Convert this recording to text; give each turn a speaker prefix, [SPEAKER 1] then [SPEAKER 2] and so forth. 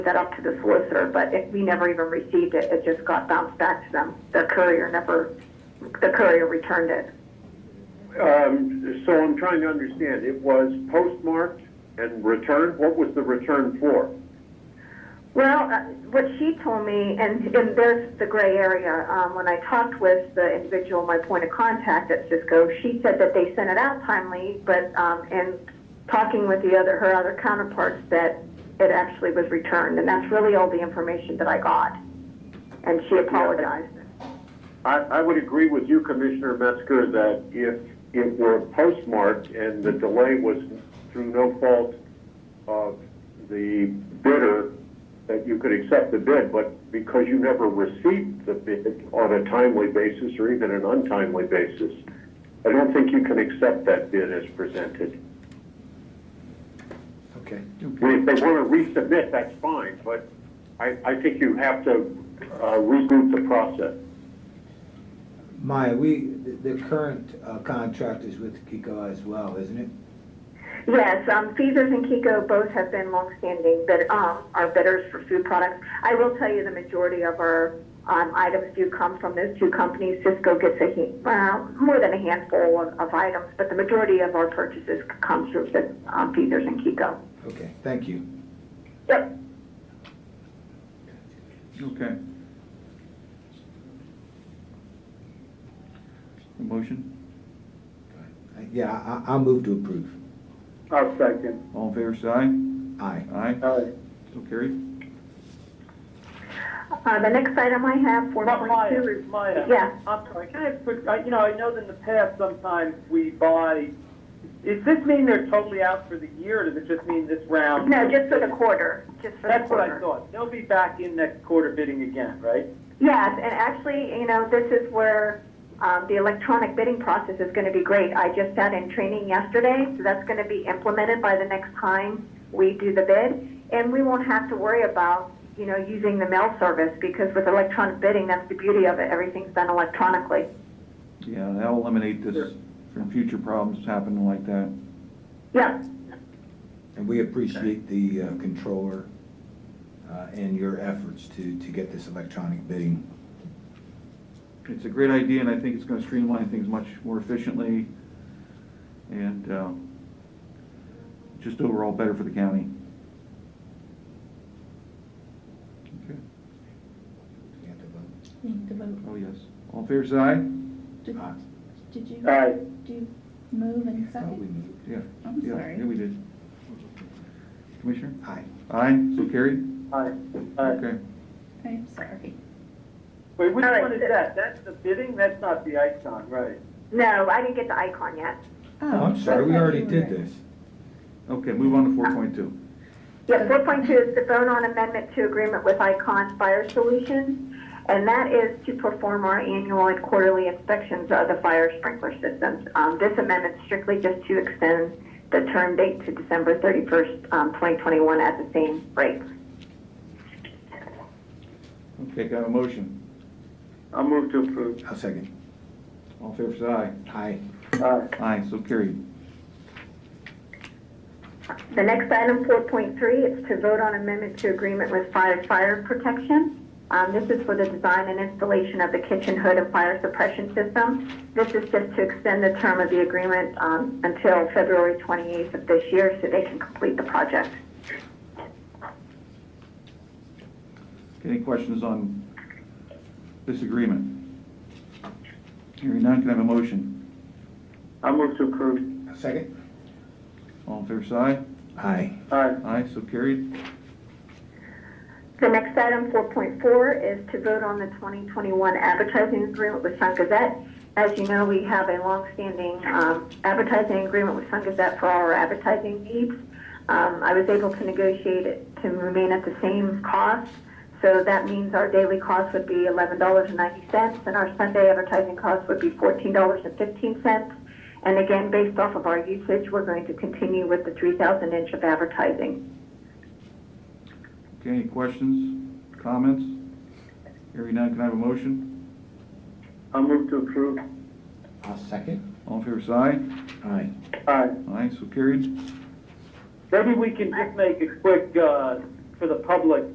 [SPEAKER 1] that up to the solicitor, but it, we never even received it. It just got bounced back to them. The courier never, the courier returned it.
[SPEAKER 2] Um, so I'm trying to understand, it was postmarked and returned, what was the return for?
[SPEAKER 1] Well, uh, what she told me, and, and there's the gray area, um, when I talked with the individual, my point of contact at Cisco, she said that they sent it out timely, but, um, and talking with the other, her other counterparts, that it actually was returned, and that's really all the information that I got. And she apologized.
[SPEAKER 2] I, I would agree with you, Commissioner Metzger, that if it were postmarked and the delay was through no fault of the bidder, that you could accept the bid, but because you never received the bid on a timely basis or even an untimely basis, I don't think you can accept that bid as presented.
[SPEAKER 3] Okay.
[SPEAKER 2] I mean, if they want to resubmit, that's fine, but I, I think you have to, uh, reboot the process.
[SPEAKER 3] Maya, we, the- the current uh, contract is with Kiko as well, isn't it?
[SPEAKER 1] Yes, um, Feathers and Kiko both have been longstanding, but, um, are bidders for food products. I will tell you, the majority of our, um, items do come from those two companies. Cisco gets a, he- well, more than a handful of, of items, but the majority of our purchases come through the, um, Feathers and Kiko.
[SPEAKER 3] Okay, thank you.
[SPEAKER 1] Yep.
[SPEAKER 4] Okay. A motion,
[SPEAKER 3] Uh, Yeah, I- I'll move to approve.
[SPEAKER 2] I'll second.
[SPEAKER 4] all in favor, say aye.
[SPEAKER 3] Aye.
[SPEAKER 4] Aye,
[SPEAKER 2] Aye.
[SPEAKER 4] so carried.
[SPEAKER 1] Uh, the next item I have, four
[SPEAKER 5] Maya,
[SPEAKER 1] point two, is,
[SPEAKER 5] Maya.
[SPEAKER 1] Yeah.
[SPEAKER 5] I'm sorry, can I have a quick, I- you know, I know that in the past, sometimes we buy, does this mean they're totally out for the year, or does it just mean this round?
[SPEAKER 1] no, just for the quarter, just for the quarter.
[SPEAKER 5] That's what I thought, they'll be back in next quarter bidding again, right?
[SPEAKER 1] Yes, and actually, you know, this is where um, the electronic bidding process is going to be great. I just sat in training yesterday, so that's going to be implemented by the next time we do the bid. And we won't have to worry about, you know, using the mail service because with electronic bidding, that's the beauty of it. Everything's done electronically.
[SPEAKER 4] Yeah, that'll eliminate this from future problems happening like that.
[SPEAKER 1] Yeah,
[SPEAKER 3] And we appreciate the uh, controller uh, and your efforts to, to get this electronic bidding.
[SPEAKER 4] It's a great idea, and I think it's gonna streamline things much more efficiently, and, uh, just overall better for the county. Okay.
[SPEAKER 3] We have to vote.
[SPEAKER 6] Need to vote.
[SPEAKER 4] Oh, yes, all in favor, say aye.
[SPEAKER 6] Did,
[SPEAKER 3] Aye.
[SPEAKER 6] did you,
[SPEAKER 3] uh,
[SPEAKER 5] Aye.
[SPEAKER 6] do you move and
[SPEAKER 3] I thought we
[SPEAKER 6] second?
[SPEAKER 3] moved.
[SPEAKER 4] Yeah.
[SPEAKER 6] I'm
[SPEAKER 4] yeah,
[SPEAKER 6] sorry.
[SPEAKER 4] Yeah, we did. Commissioner?
[SPEAKER 3] Aye.
[SPEAKER 4] Aye, so carried?
[SPEAKER 5] Aye. Aye.
[SPEAKER 4] Okay.
[SPEAKER 6] I'm sorry.
[SPEAKER 5] Wait, which
[SPEAKER 1] All right,
[SPEAKER 5] one is
[SPEAKER 1] so-
[SPEAKER 5] that? That's the bidding, that's not the icon, right?
[SPEAKER 1] no, I didn't get the icon yet.
[SPEAKER 3] Oh, I'm
[SPEAKER 6] I
[SPEAKER 3] sorry, we
[SPEAKER 6] thought
[SPEAKER 3] already
[SPEAKER 6] you were-
[SPEAKER 3] did this.
[SPEAKER 4] Okay, move on to four point two.
[SPEAKER 1] Yeah, four point two is the vote on amendment to agreement with Icon Fire Solutions, and that is to perform our annual and quarterly inspections of the fire sprinkler systems. Um, this amendment strictly just to extend the term date to December thirty-first, um, twenty twenty-one at the same rate.
[SPEAKER 4] Okay, got a motion.
[SPEAKER 5] I'll move to approve.
[SPEAKER 3] I'll second.
[SPEAKER 4] All in favor, say aye.
[SPEAKER 3] Aye.
[SPEAKER 5] Aye.
[SPEAKER 4] Aye, so carried.
[SPEAKER 1] The next item, four point three, is to vote on amendment to agreement with fire fire protection. Um, this is for the design and installation of the kitchen hood and fire suppression system. This is just to extend the term of the agreement, um, until February twenty-eighth of this year, so they can complete the project.
[SPEAKER 4] Okay, Any questions on this agreement? Hearing none, can I have a motion?
[SPEAKER 5] I'll move to approve.
[SPEAKER 3] I'll second.
[SPEAKER 4] All in favor, say aye.
[SPEAKER 3] Aye.
[SPEAKER 5] Aye.
[SPEAKER 4] Aye, so carried.
[SPEAKER 1] The next item, 4.4, is to vote on the 2021 advertising agreement with Sun Gazette. As you know, we have a longstanding um, advertising agreement with Sun Gazette for all our advertising needs. Um, I was able to negotiate it to remain at the same cost, so that means our daily cost would be $11.90, and our Sunday advertising cost would be $14.15. And again, based off of our usage, we're going to continue with the 3,000 inch of advertising.
[SPEAKER 4] Okay, any questions, comments? Hearing none, can I have a motion?
[SPEAKER 5] I'll move to approve.
[SPEAKER 3] I'll second.
[SPEAKER 4] All in favor, say aye.
[SPEAKER 3] Aye.
[SPEAKER 5] Aye.
[SPEAKER 4] Aye, so carried.
[SPEAKER 5] Maybe we can just make a quick, uh, for the public,